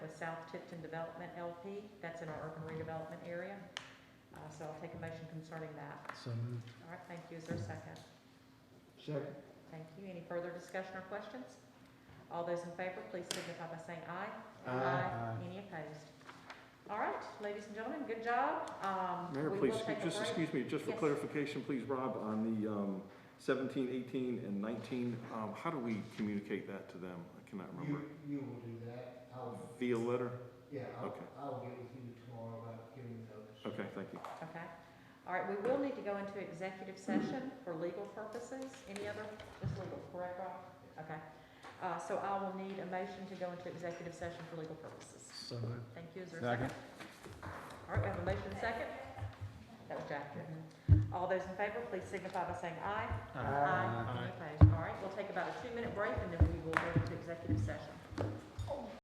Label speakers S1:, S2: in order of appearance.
S1: South Tipton Development LP. That's in our urban redevelopment area. Uh, So I'll take a motion concerning that.
S2: So moved.
S1: All right, thank you. Is there a second?
S3: Second.
S1: Thank you. Any further discussion or questions? All those in favor, please signify by saying aye.
S2: Aye.
S1: Any opposed? All right, ladies and gentlemen, good job. Um,
S3: Mayor,
S1: we
S3: please,
S1: will take a
S3: just
S1: break.
S3: excuse me, just for
S1: Yes.
S3: clarification, please, Rob, on the um, 17, 18, and 19, um, how do we communicate that to them? I cannot remember.
S4: You, you will do that. I'll,
S3: Via letter?
S4: yeah, I'll,
S3: Okay.
S4: I'll get with you tomorrow about giving notice.
S3: Okay, thank you.
S1: Okay. All right, we will need to go into executive session for legal purposes. Any other, just legal, correct, Rob? Okay. Uh, So I will need a motion to go into executive session for legal purposes.
S2: So moved.
S1: Thank you. Is there a second? All right, we have a motion and second. That was Jack. All those in favor, please signify by saying aye. Any opposed? All right, we'll take about a two-minute break, and then we will go into executive session.